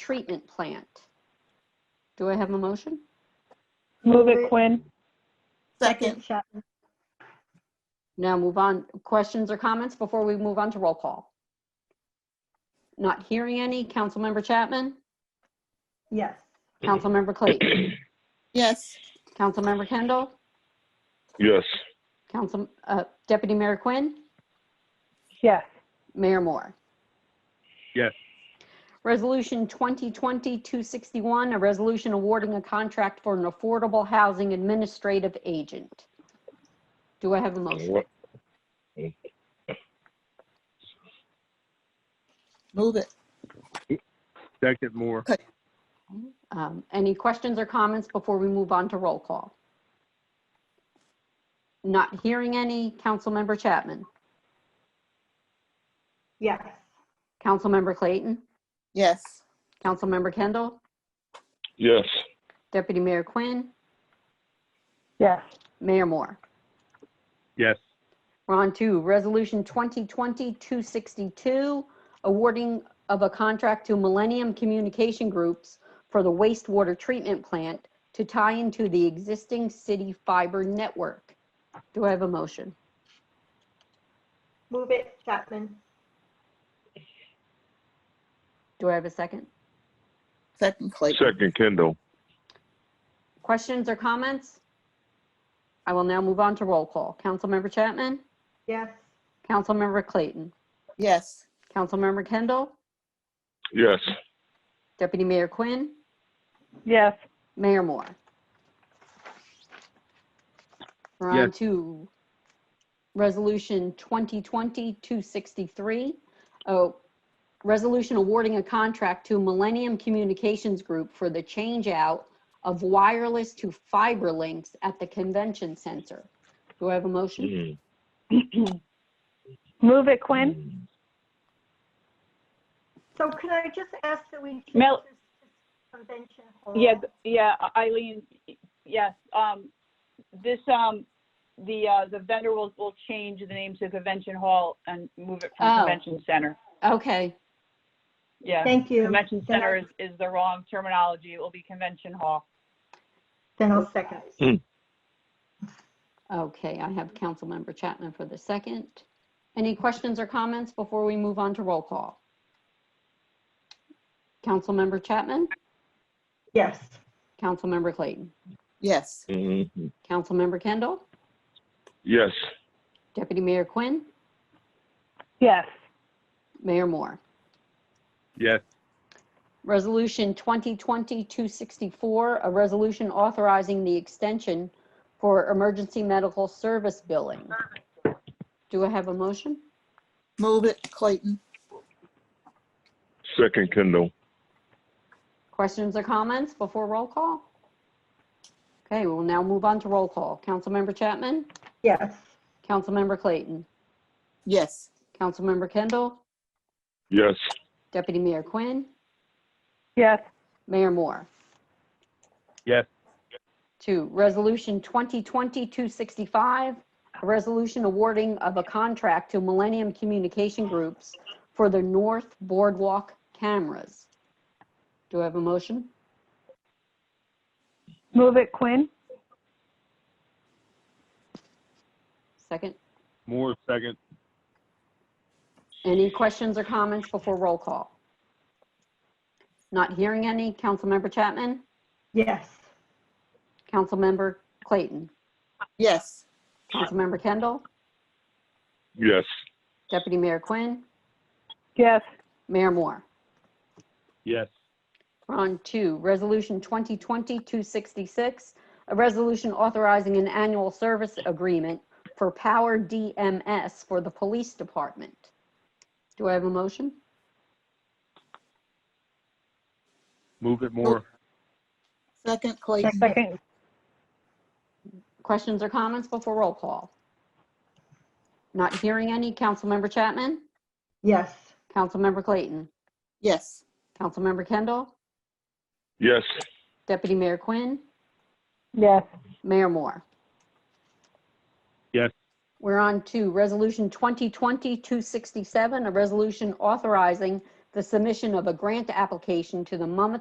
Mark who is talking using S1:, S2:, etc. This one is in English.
S1: treatment plant. Do I have a motion?
S2: Move it Quinn.
S3: Second,
S4: Chapman.
S1: Now move on, questions or comments before we move on to roll call? Not hearing any. Councilmember Chapman?
S4: Yes.
S1: Councilmember Clayton?
S3: yes.
S1: Councilmember Kendall?
S5: Yes.
S1: Council, uh, Deputy Mayor Quinn?
S2: Yes.
S1: Mayor Moore?
S5: Yes.
S1: Resolution 2020-261, a resolution awarding a contract for an affordable housing administrative agent. Do I have a motion?
S5: What-
S3: Move it.
S5: Second more.
S1: Um, Any questions or comments before we move on to roll call? Not hearing any. Councilmember Chapman?
S4: Yes.
S1: Councilmember Clayton?
S3: Yes.
S1: Councilmember Kendall?
S5: Yes.
S1: Deputy Mayor Quinn?
S2: Yes.
S1: Mayor Moore?
S5: Yes.
S1: We're on to Resolution 2020-262, awarding of a contract to Millennium Communication Groups for the wastewater treatment plant to tie into the existing city fiber network. Do I have a motion?
S4: Move it Chapman.
S1: Do I have a second?
S3: Second, Clayton.
S5: Second Kindle.
S1: Questions or comments? I will now move on to roll call. Councilmember Chapman?
S4: Yes.
S1: Councilmember Clayton?
S3: Yes.
S1: Councilmember Kendall?
S5: Yes.
S1: Deputy Mayor Quinn?
S2: Yes.
S1: Mayor Moore? We're on
S5: Yes.
S1: to Resolution 2020-263. Oh, resolution awarding a contract to Millennium Communications Group for the change out of wireless to fiber links at the convention center. Do I have a motion?
S5: Mm.
S2: Move it Quinn.
S4: So can I just ask that we change
S2: Mel-
S4: this to convention hall?
S2: Yeah, th- yeah, Eileen, yes, um, this, um, the, uh, the vendor will, will change the name to Convention Hall and move it
S1: Oh.
S2: from Convention Center.
S1: Okay,
S2: Yeah,
S4: Thank you.
S2: um, Convention Center is, is the wrong terminology, it will be Convention Hall.
S4: Then I'll second.
S1: okay, I have Councilmember Chapman for the second. Any questions or comments before we move on to roll call? Councilmember Chapman?
S4: Yes.
S1: Councilmember Clayton?
S3: Yes.
S5: Mhm.
S1: Councilmember Kendall?
S5: Yes.
S1: Deputy Mayor Quinn?
S2: Yes.
S1: Mayor Moore?
S5: Yes.
S1: Resolution 2020-264, a resolution authorizing the extension for emergency medical service billing. Do I have a motion?
S3: Move it, Clayton.
S5: Second Kindle.
S1: Questions or comments before roll call? Okay, we'll now move on to roll call. Councilmember Chapman?
S4: Yes.
S1: Councilmember Clayton?
S3: Yes.
S1: Councilmember Kendall?
S5: Yes.
S1: Deputy Mayor Quinn?
S2: Yes.
S1: Mayor Moore?
S5: Yes.
S1: Two, Resolution 2020-265, a resolution awarding of a contract to Millennium Communication Groups for the North Boardwalk cameras. Do I have a motion?
S2: Move it Quinn.
S1: Second?
S5: More second.
S1: Any questions or comments before roll call? Not hearing any. Councilmember Chapman?
S4: Yes.
S1: Councilmember Clayton?
S3: Yes.
S1: Councilmember Kendall?
S5: Yes.
S1: Deputy Mayor Quinn?
S2: Yes.
S1: Mayor Moore?
S5: Yes.
S1: We're on to Resolution 2020-266, a resolution authorizing an annual service agreement for Power DMS for the Police Department. Do I have a motion?
S5: Move it
S3: more. Second, Clayton.
S2: Second.
S1: Questions or comments before roll call? Not hearing any. Councilmember Chapman?
S4: Yes.
S1: Councilmember Clayton?
S3: Yes.
S1: Councilmember Kendall?
S5: Yes.
S1: Deputy Mayor Quinn?
S2: Yes.
S1: Mayor Moore?
S5: Yes.
S1: We're on to Resolution 2020-267, a resolution authorizing the submission of a grant application to the Monmouth